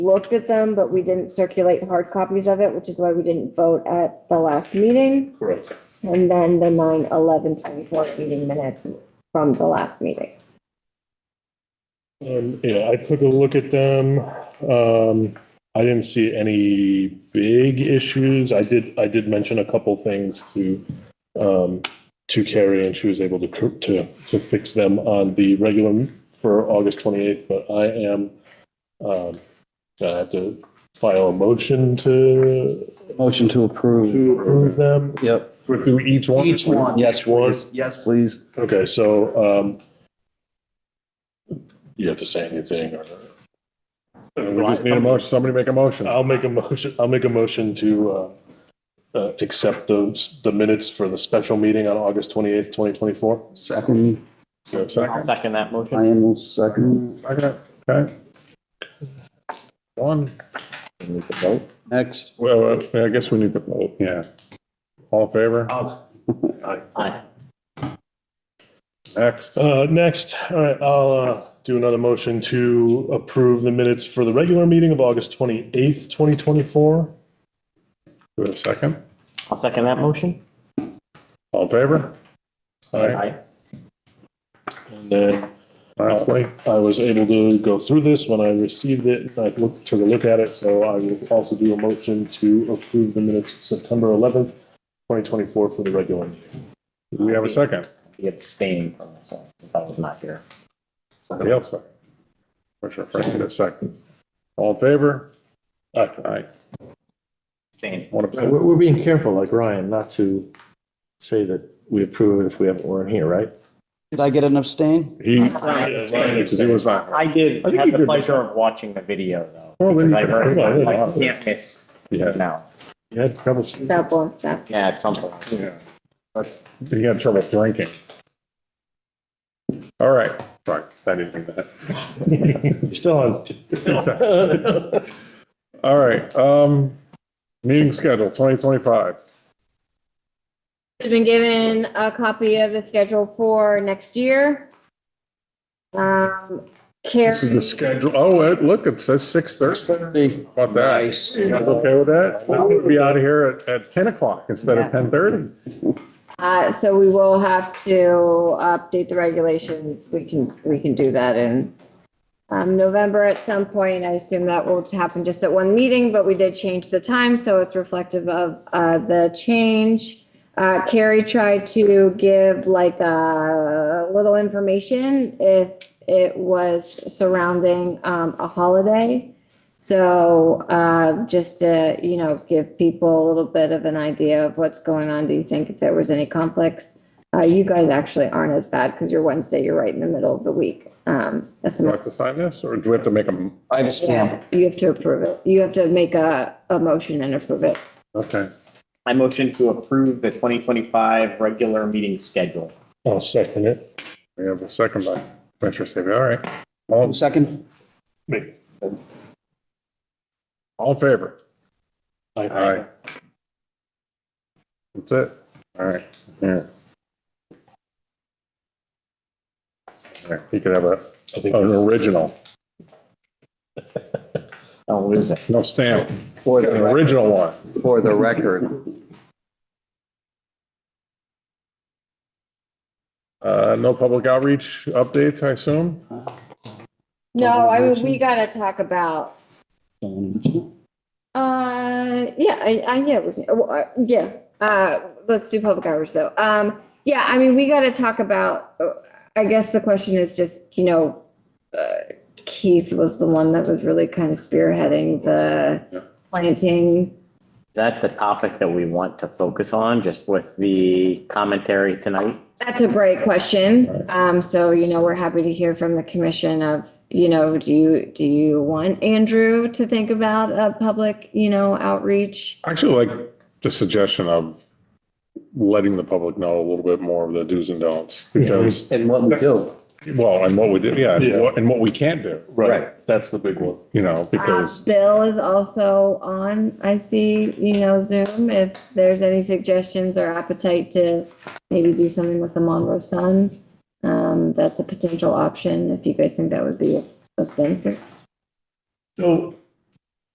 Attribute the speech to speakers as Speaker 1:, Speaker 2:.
Speaker 1: looked at them, but we didn't circulate hard copies of it, which is why we didn't vote at the last meeting.
Speaker 2: Correct.
Speaker 1: And then the nine eleven twenty-four meeting minutes from the last meeting.
Speaker 2: Um, yeah, I took a look at them. Um, I didn't see any big issues. I did, I did mention a couple things to, um, to Carrie and she was able to, cor- to, to fix them on the regular for August 28th, but I am, um, gonna have to file a motion to
Speaker 3: Motion to approve.
Speaker 2: to approve them.
Speaker 3: Yep.
Speaker 2: We're through each one?
Speaker 3: Each one, yes,
Speaker 2: Each one?
Speaker 3: please. Yes, please.
Speaker 2: Okay, so, um, you have to say anything or?
Speaker 4: We just need a motion, somebody make a motion.
Speaker 2: I'll make a motion, I'll make a motion to, uh, uh, accept those, the minutes for the special meeting on August twenty-eighth, twenty twenty-four.
Speaker 3: Second,
Speaker 4: Second,
Speaker 5: Second that motion.
Speaker 3: Ryan will second.
Speaker 4: second, okay. One,
Speaker 3: Next.
Speaker 4: well, uh, I guess we need to vote, yeah. All in favor?
Speaker 5: Aye.
Speaker 4: Next,
Speaker 2: Uh, next, all right, I'll, uh, do another motion to approve the minutes for the regular meeting of August twenty-eighth, twenty twenty-four.
Speaker 4: do a second,
Speaker 5: I'll second that motion.
Speaker 4: all in favor? All right,
Speaker 2: And then
Speaker 4: lastly,
Speaker 2: Uh, I was able to go through this when I received it, and I looked, took a look at it, so I will also do a motion to approve the minutes of September eleventh, twenty twenty-four for the regular meeting.
Speaker 4: do we have a second,
Speaker 5: He abstained from this one since I was not here.
Speaker 4: somebody else second. Commissioner Frank did a second. All in favor? All right,
Speaker 5: Abstained.
Speaker 4: one
Speaker 6: We're,
Speaker 4: abstention,
Speaker 6: we're being careful, like Ryan, not to say that we approve it if we haven't, weren't here, right?
Speaker 3: Did I get an abstain?
Speaker 4: he, because he
Speaker 5: I
Speaker 4: was not.
Speaker 5: did
Speaker 4: I think
Speaker 5: have
Speaker 4: you
Speaker 5: the
Speaker 4: did.
Speaker 5: pleasure of watching the video though.
Speaker 4: Well, then
Speaker 5: because
Speaker 4: you
Speaker 5: I
Speaker 4: can-
Speaker 5: heard,
Speaker 4: well,
Speaker 5: it, like,
Speaker 4: yeah.
Speaker 5: you can't miss
Speaker 4: Yeah.
Speaker 5: now.
Speaker 6: You had trouble,
Speaker 1: That one step.
Speaker 5: Yeah, at some point.
Speaker 4: Yeah.
Speaker 5: Let's,
Speaker 4: He had trouble drinking. All right, sorry, I didn't think that.
Speaker 2: You're Still on.
Speaker 4: All right, um, meeting schedule twenty twenty-five.
Speaker 1: Has been given a copy of the schedule for next year. Um,
Speaker 4: This is the
Speaker 1: Carrie,
Speaker 4: schedule. Oh, it- look, it says six thirty. About that.
Speaker 3: Nice.
Speaker 4: You guys okay with that? Now We'll be out of here at, at ten o'clock instead of ten thirty.
Speaker 1: uh, so we will have to update the regulations. We can, we can do that in um, November at some point. I assume that will happen just at one meeting, but we did change the time, so it's reflective of, uh, the change. Uh, Carrie tried to give like a little information if it was surrounding, um, a holiday. So, uh, just to, you know, give people a little bit of an idea of what's going on. Do you think if there was any conflicts? Uh, you guys actually aren't as bad because you're Wednesday, you're right in the middle of the week. Um, that's
Speaker 4: Do I
Speaker 1: my
Speaker 4: have to sign this or do we have to make them?
Speaker 3: I have a stamp.
Speaker 1: you have to approve it. You have to make a, a motion and approve it.
Speaker 4: Okay,
Speaker 5: I motion to approve the twenty twenty-five regular meeting schedule.
Speaker 2: I'll second it.
Speaker 4: we have a second by Commissioner Sabia. All right. All,
Speaker 3: Second?
Speaker 2: Me.
Speaker 4: all in favor?
Speaker 2: Aye.
Speaker 4: All right. That's it. All right, here. All right, You could have a,
Speaker 2: I
Speaker 4: an
Speaker 2: think
Speaker 4: original,
Speaker 5: Don't lose it.
Speaker 4: no stamp,
Speaker 3: For
Speaker 4: an original one.
Speaker 3: for the record.
Speaker 4: Uh, no public outreach updates, I assume?
Speaker 1: No, I mean, we gotta talk about, uh, yeah, I, I, yeah, we can- well, uh, yeah. Uh, let's do public hours though. Um, yeah, I mean, we gotta talk about, uh, I guess the question is just, you know, uh, Keith was the one that was really kind of spearheading the planting.
Speaker 5: Is that the topic that we want to focus on, just with the commentary tonight?
Speaker 1: That's a great question. Um, so, you know, we're happy to hear from the commission of, you know, do you, do you want Andrew to think about a public, you know, outreach?
Speaker 4: Actually, like the suggestion of letting the public know a little bit more of the do's and don'ts because,
Speaker 3: And what we do.
Speaker 4: well, and what we do, yeah,
Speaker 2: Yeah.
Speaker 4: and what- and what we can't do,
Speaker 2: Right, that's the big one.
Speaker 4: you know,
Speaker 1: Uh,
Speaker 4: because,
Speaker 1: Bill is also on, I see, you know, Zoom, if there's any suggestions or appetite to maybe do something with the Monroe Sun. Um, that's a potential option if you guys think that would be a benefit.
Speaker 2: So